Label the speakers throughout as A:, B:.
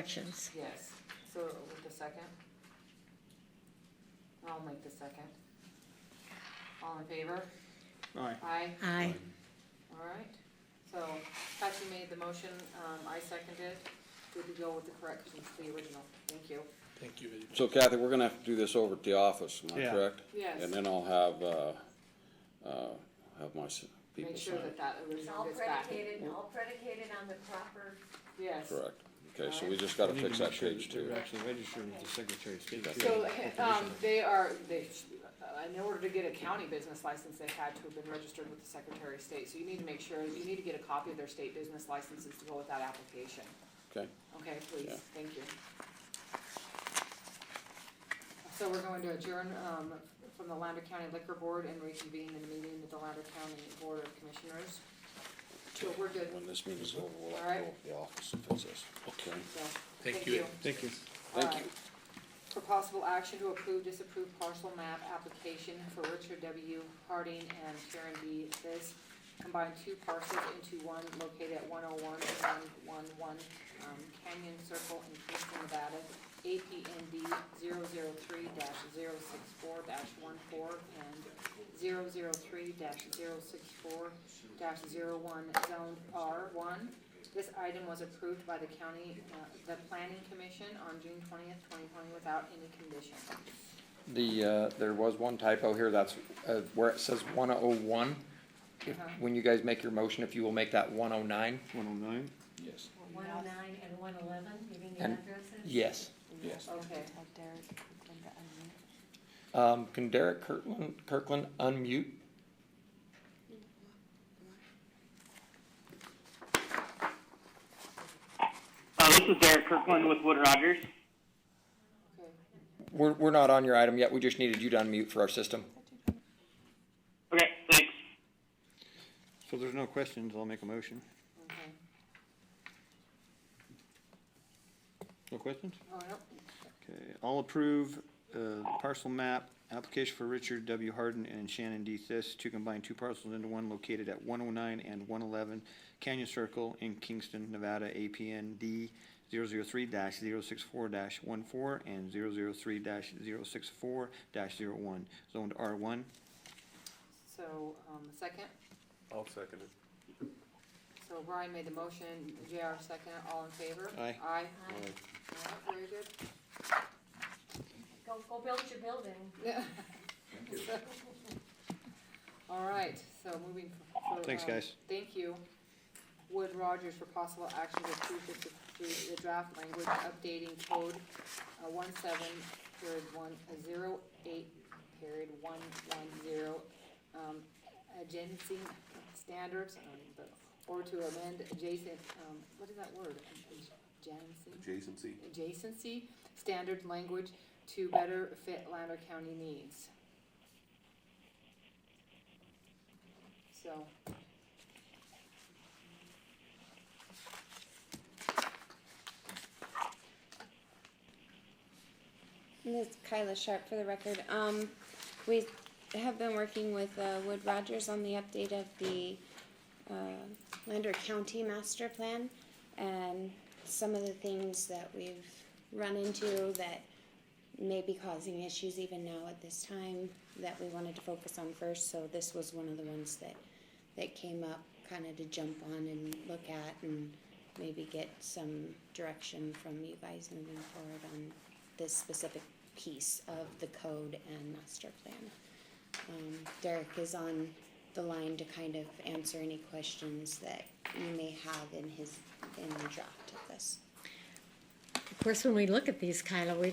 A: corrections.
B: Yes, so with the second? I'll make the second. All in favor?
C: Aye.
B: Aye,
A: Aye.
B: all right. So Patsy made the motion, um, I seconded. Did we go with the corrections to the original? Thank you.
C: Thank you.
D: So Kathy, we're gonna have to do this over at the office, am I
C: Yeah.
D: correct?
B: Yes.
D: And then I'll have, uh, uh, have my s- people
B: Make sure
D: sign
B: that
D: it,
B: that
E: It's
B: original
E: all
B: gets back.
E: predicated, all predicated on the proper,
B: Yes.
D: correct? Okay, so we just gotta fix that page too.
C: They're actually registered with the Secretary of State.
B: So, um, they are, they, uh, in order to get a county business license, they had to have been registered with the Secretary of State. So you need to make sure, you need to get a copy of their state business licenses to go with that application.
D: Okay,
B: Okay, please,
D: Yeah.
B: thank you. So we're going to adjourn, um, from the Lander County Liquor Board and reconvene in the meeting with the Lander County Board of Commissioners. So we're good,
D: when this meeting's over, we'll
B: All right.
D: have to go to the office and fix this. Okay,
B: so,
C: Thank you. Thank you.
D: thank
B: Alright.
D: you.
B: For possible action to approve, disapprove parcel map application for Richard W. Harding and Sharon B. This combine two parcels into one located at one oh one one one one um, Canyon Circle in Kingston, Nevada, APND 3 64 one four and 3 64 one zoned R one. This item was approved by the county, uh, the planning commission on June twentieth, twenty twenty, without any condition.
F: The, uh, there was one typo here, that's, uh, where it says one oh one. If,
B: Uh-huh.
F: when you guys make your motion, if you will make that one oh nine,
C: One oh nine?
D: Yes,
E: one oh nine and one eleven, you mean the
F: And-
E: addresses?
F: yes.
D: yes.
B: Okay,
F: Um, can Derek Kirkland, Kirkland unmute?
G: Uh, this is Derek Kirkland with Wood Rogers.
B: okay.
F: We're, we're not on your item yet, we just needed you to unmute for our system.
G: Okay, thanks.
C: So there's no questions, I'll make a motion.
B: Okay,
C: No questions?
B: oh, no,
C: Okay, I'll approve, uh, parcel map, application for Richard W. Harden and Shannon D. Thiss to combine two parcels into one located at one oh nine and one eleven Canyon Circle in Kingston, Nevada, APN D 3 64 one four and 3 64 one zoned R one.
B: so, um, the second,
H: I'll second it.
B: so Brian made the motion, JR second, all in favor?
C: Aye.
B: Aye,
E: Aye.
B: All right, very good.
E: Go, go build your building.
B: Yeah. All right, so moving for. for,
C: Thanks,
B: um,
C: guys.
B: Thank you. Wood Rogers for possible action to approve the, to the draft language updating code, uh, one seven, period one, uh, zero eight, period one, one, zero, um, agency standards, um, but, or to amend adjacent, um, what is that word? Agency?
H: Adjacency.
B: adjacency standard language to better fit Lander County needs. So.
I: This is Kyla Sharp for the record. Um, we have been working with, uh, Wood Rogers on the update of the, uh, Lander County Master Plan. And some of the things that we've run into that may be causing issues even now at this time that we wanted to focus on first. So this was one of the ones that, that came up kind of to jump on and look at and maybe get some direction from you guys moving forward on this specific piece of the code and master plan. Um, Derek is on the line to kind of answer any questions that you may have in his, in the draft of this.
A: Of course, when we look at these, Kyla, we,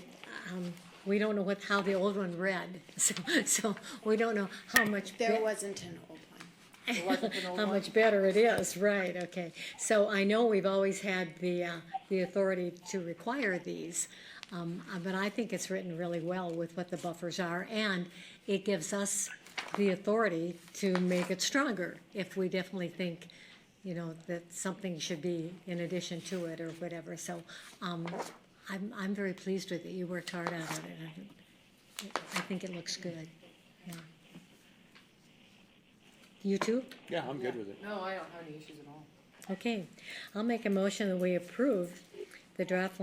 A: um, we don't know what, how the old one read, so, so we don't know how much.
I: There
A: bit-
I: wasn't an old one.
A: how much better it is, right, okay. So I know we've always had the, uh, the authority to require these, um, uh, but I think it's written really well with what the buffers are, and it gives us the authority to make it stronger if we definitely think, you know, that something should be in addition to it or whatever, so, um, I'm, I'm very pleased with it, you worked hard on it, and I- I think it looks good, yeah. You too?
C: Yeah, I'm good with it.
B: No, I don't have any issues at all.
A: Okay, I'll make a motion that we approve the draft